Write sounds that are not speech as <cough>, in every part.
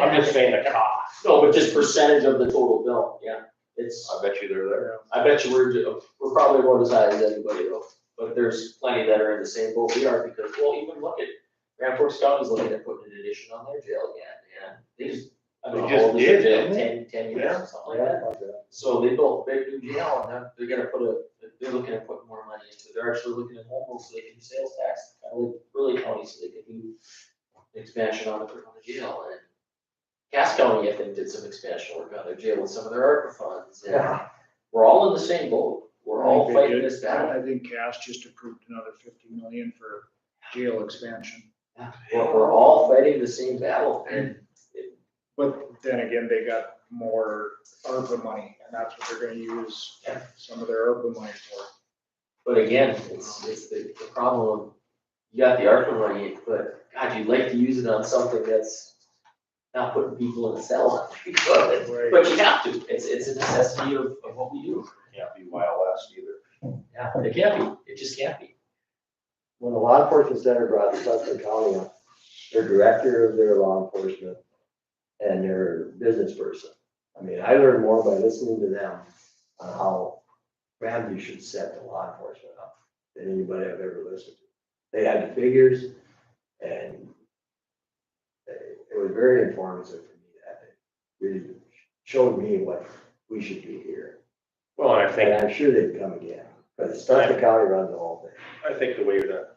I'm just saying the cost, no, but just percentage of the total bill, yeah, it's, I bet you they're there. I bet you we're, ju- we're probably about as high as anybody though. But there's plenty that are in the same boat we are, because, well, even look at, Grand Forks County's looking at putting an addition on their jail again, yeah, they just. I don't know, They just how old is their did, jail? didn't they? Ten, ten years Yeah. or something like that. So they built a big new jail and they're, they're gonna put a, they're looking at putting more money into it. They're actually looking at home rules so they can do sales tax, kind of like Burley County, so they can do expansion on the, on the jail and Cass County, I think, did some expansion work on their jail with some of their ARPA funds and we're all in the same boat. We're all fighting this battle. I think Cash just approved another fifty million for jail expansion. We're, we're all fighting the same battle and But then again, they got more ARPA money and that's what they're gonna use some of their ARPA money for. But again, it's, it's the, the problem, of you got the ARPA money, but God, you'd like to use it on something that's not putting people in a cell. <laughs> But Right. but you have to, it's, it's a necessity of, of what we do. Can't be wild west either. Yeah, it can't be, it just can't be. When the law enforcement center brought Sutton County up, their director of their law enforcement and their business person. I mean, I learned more by listening to them on how Ramsey should set the law enforcement up than anybody I've ever listened to. They had the figures and they- it was very informative for me that it really showed me what we should do here. Well, and I And think, I'm sure they'd come again, but Sutton County runs the whole thing. I think the way that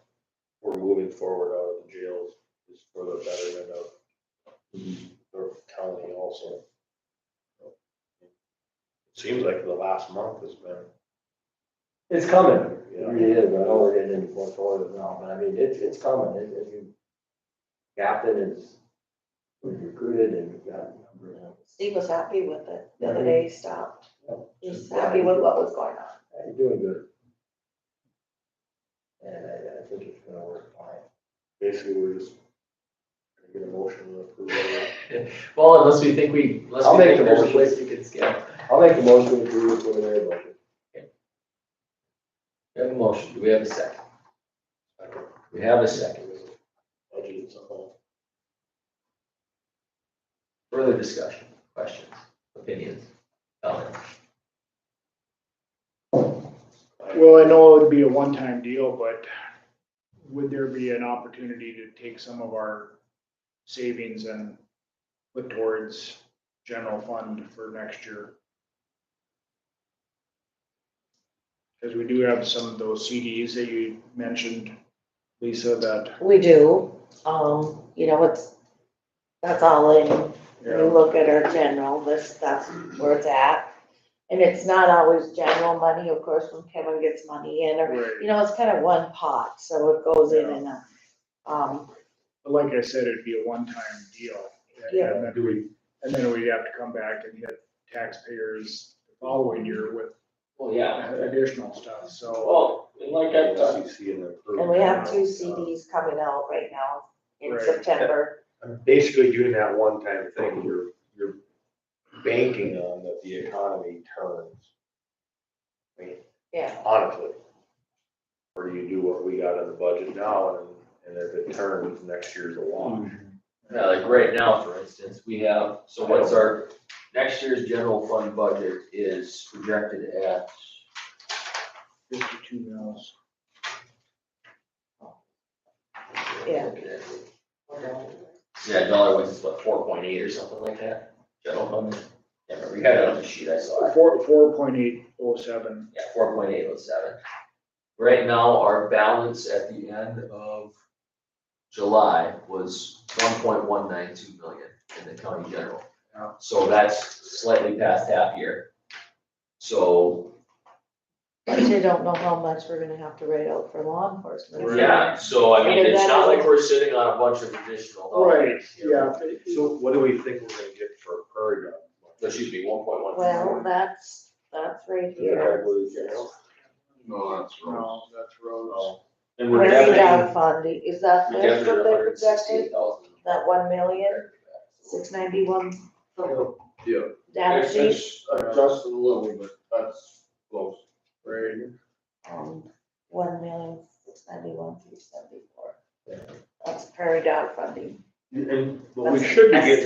we're moving forward out of the jails is for the betterment of the county also. It Seems like the last month has been, It's coming. you It know. really is, I know we're getting into portfolio now, but I mean, it's, it's coming, it, it, you- Captain is was recruited and we've got a number of. Steve was happy with it, the other day he stopped, he was happy with what was going on. Uh, You're doing good. And I, I think it's gonna work fine. Basically, we're just gonna get a motion to approve it. Well, unless we think we, unless I'll we make think the there's a motion. place we can scale. I'll make a motion to approve the preliminary budget. We have a motion, do we have a second? I don't We have a second, budget it's all. further discussion, questions, opinions, comments? Well, I know it would be a one-time deal, but would there be an opportunity to take some of our savings and put towards general fund for next year? Because we do have some of those CDs that you mentioned, Lisa, that, We do, um, you know, it's, that's all in, when you yeah, look at our general, this, that's where it's at. And it's not always general money, of course, when Kevin gets money in, or, right. you know, it's kind of one pot, so it goes in and, out. um, But like I said, it'd be a one-time deal. and- Yeah. And then we, and then we'd have to come back and hit taxpayers the following year with Well, yeah, additional stuff, so. well, and like uh, I've done, CC and approve. and we have two CDs coming out right now in Right. September. basically doing that one-time thing, you're, you're banking on that the economy turns. I mean, Yeah. honestly. Or you do what we got in the budget now, and, and if it turns, next year's a wash. Yeah, Uh, like right now, for instance, we have, so what's our, next year's general fund budget is projected at, Fifty-two mils. Yeah. yeah, dollar was what, four point eight or something like that, general fund? Yeah, we had it on the sheet, I saw it, Four, four point eight oh seven, yeah, four point eight oh seven. Right now, our balance at the end of July was one point one nine two million in the county general. Yeah. So that's slightly past half year. So But you don't know how much we're gonna have to write out for law enforcement. Yeah, so I mean, Right. it's not like we're sitting on a bunch of additional. right, dollars, you know. yeah, So what do we think we're gonna get for per gun? Excuse me, one point one. Well, that's, that's right Yeah, I here. believe, yeah. No, that's wrong. no, that's roads. And we're Where's definitely, that funding, is that we definitely this what they hundred and projected, sixty-eight thousand. that one million, six ninety-one? Yeah. Data It's- sheet, it's Adjusted a little, but that's close. Right, um, one million, six ninety-one, three seventy-four. That's prairie dog funding. And, but we That's- should be that's- getting